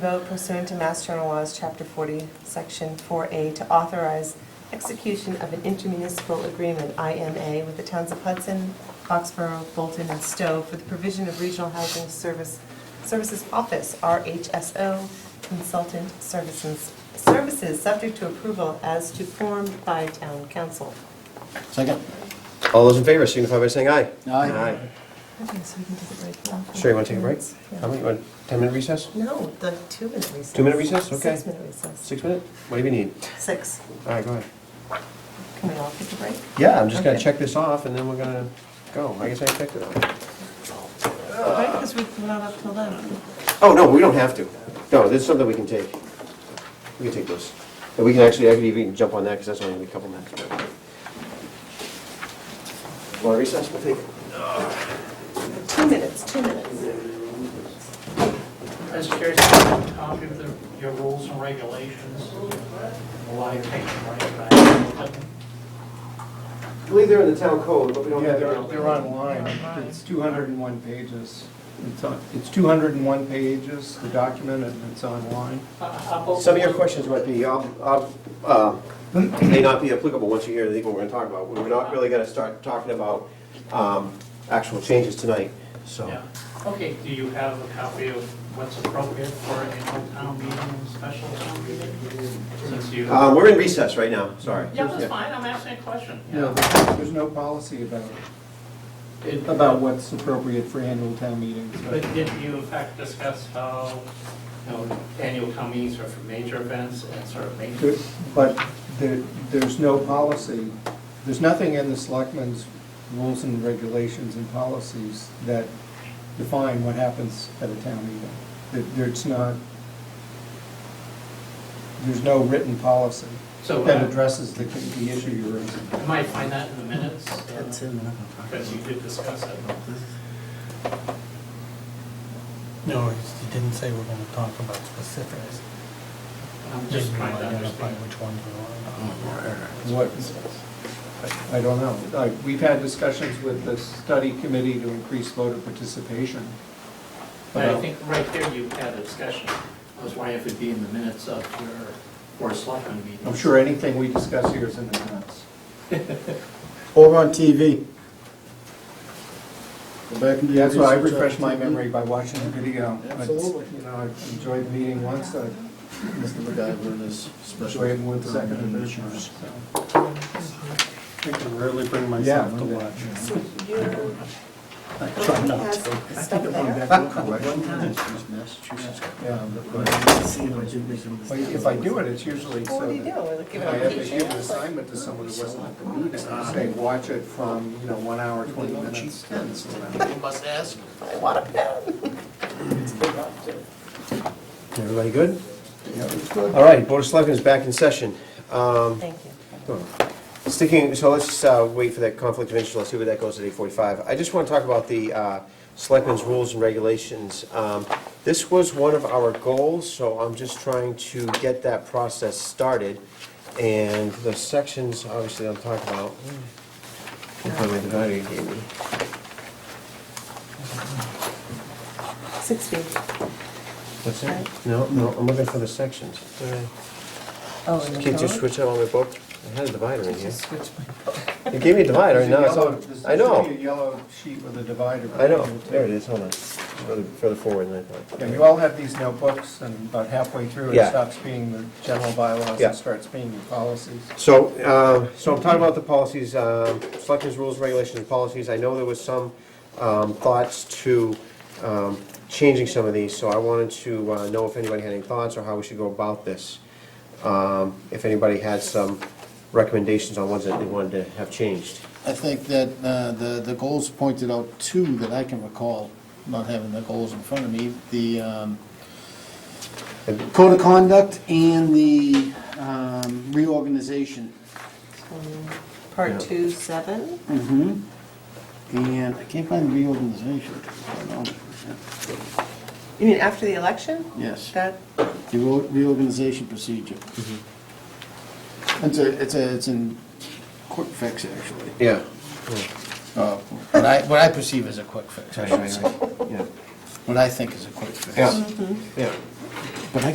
Vote pursuant to Mass General Laws, Chapter 40, Section 4A, to authorize execution of an intermunicipal agreement, IMA, with the towns of Hudson, Foxborough, Bolton, and Stowe for the provision of regional housing service, services office, RHSO, consultant services, services subject to approval as to form by town council. Second. All those in favor signify by saying aye. Aye. Okay, so we can take a break now. Sure, you want to take a break? Yeah. How many, you want 10-minute recess? No, the two-minute recess. Two-minute recess? Okay. Six-minute recess. Six-minute? Whatever you need. Six. All right, go ahead. Can we all take a break? Yeah, I'm just going to Okay. check this off, and then we're going to go. I guess I checked it off. Right, because we're not up till then. Oh, no, we don't have to. No, there's something we can take. We can take this. And we can actually, I could even jump on that, because that's only gonna be a couple minutes. Want to recess? We'll take it. Two minutes, two minutes. Mr. Chair, can you copy of the- your rules and regulations? Why you take them right back? I believe they're in the town code, but we don't Yeah, have they're, it. they're online. It's 201 pages. It's on- It's 201 pages, the document, and it's online. Some of your questions might be, um, um, uh, may not be applicable once you hear the what we're going to talk about. We're not really going to start talking about um, actual changes tonight, so. Yeah. Okay, do you have a copy of what's appropriate for an annual town meeting and special town meeting? Since you. Uh, We're in recess right now, sorry. Yeah, that's fine, I'm asking a question. No, there's there's no policy about, Did- about what's appropriate for annual town meetings. But but- didn't you in fact discuss how, you know, annual town meetings are for major events and sort of major? But there, there's no policy, there's nothing in the selectmen's rules and regulations and policies that define what happens at a town meeting. That There's not, there's no written policy So, uh, that addresses the, the issue you're raising. You might find that in the minutes. Because you did discuss it. No, he didn't say we're gonna talk about specifics. I'm just trying to Identify understand. which ones we want. What, I don't know. I- We've had discussions with the study committee to increase voter participation. But I about- think right there you had a discussion. I was wondering if it'd be in the minutes of your Board of Selectmen meeting. I'm sure anything we discuss here is in the minutes. Over on TV. Go back and do That's why I research on refresh my TV. memory by watching the video. It's- Absolutely. You know, I enjoyed the meeting once, I Mr. MacGyver and his special. enjoyed it with the second and third time, issues. so. I can rarely bring myself myself to to watch. watch. So you're, I try not to. has stuff there? Massachusetts. Yeah. But If I do it, it's usually so Well, What do you do? that Like, give I have to it give a an assignment to someone who wasn't at the meeting, say, watch it from, you know, one hour, 20 minutes. and so on. must ask. I want a pen. Everybody good? All right, Board of Selectmen is back in session. Um, Thank you. Hmm. Sticking, so let's just uh, wait for that conflict of interest, let's see where that goes at 8:45. I just want to talk about the uh, Selectmen's Rules and Regulations. Um, This was one of our goals, so I'm just trying to get that process started. And the sections, obviously, I'll talk about. Hmm. If I made the value you gave me. Six feet. What's that? No, no, I'm looking for the sections. Oh, in Can't you switch out all my book? I had a divider in here. Just switch my, You gave me a divider, and now it's all, There's I a yellow- There's know, a yellow sheet with a divider. I know, there it is, hold on. It's Further further forward than I thought. Yeah, you all have these notebooks, and about halfway through, it Yeah. stops being the general bylaws Yeah. and starts being your policies. So, uh, so I'm talking about the policies, uh, selectmen's rules, regulations, and policies. I know there was some um, thoughts to um, changing some of these, so I wanted to uh, know if anybody had any thoughts or how we should go about this. Um, If anybody had some recommendations on ones that they wanted to have changed. I think that uh, the, the goals pointed out two that I can recall, not having the goals in front of me, the um, code of conduct and the um, reorganization. um, part two, seven. Mm-hmm. And I can't find the reorganization. I don't know. You mean after the election? Yes, That, the re- reorganization procedure. It's a, it's a, it's in quick fix, actually. Yeah. Uh, What I, what I perceive as a quick fix, I should say. Yeah. what I think is a quick fix. Yeah. Yeah.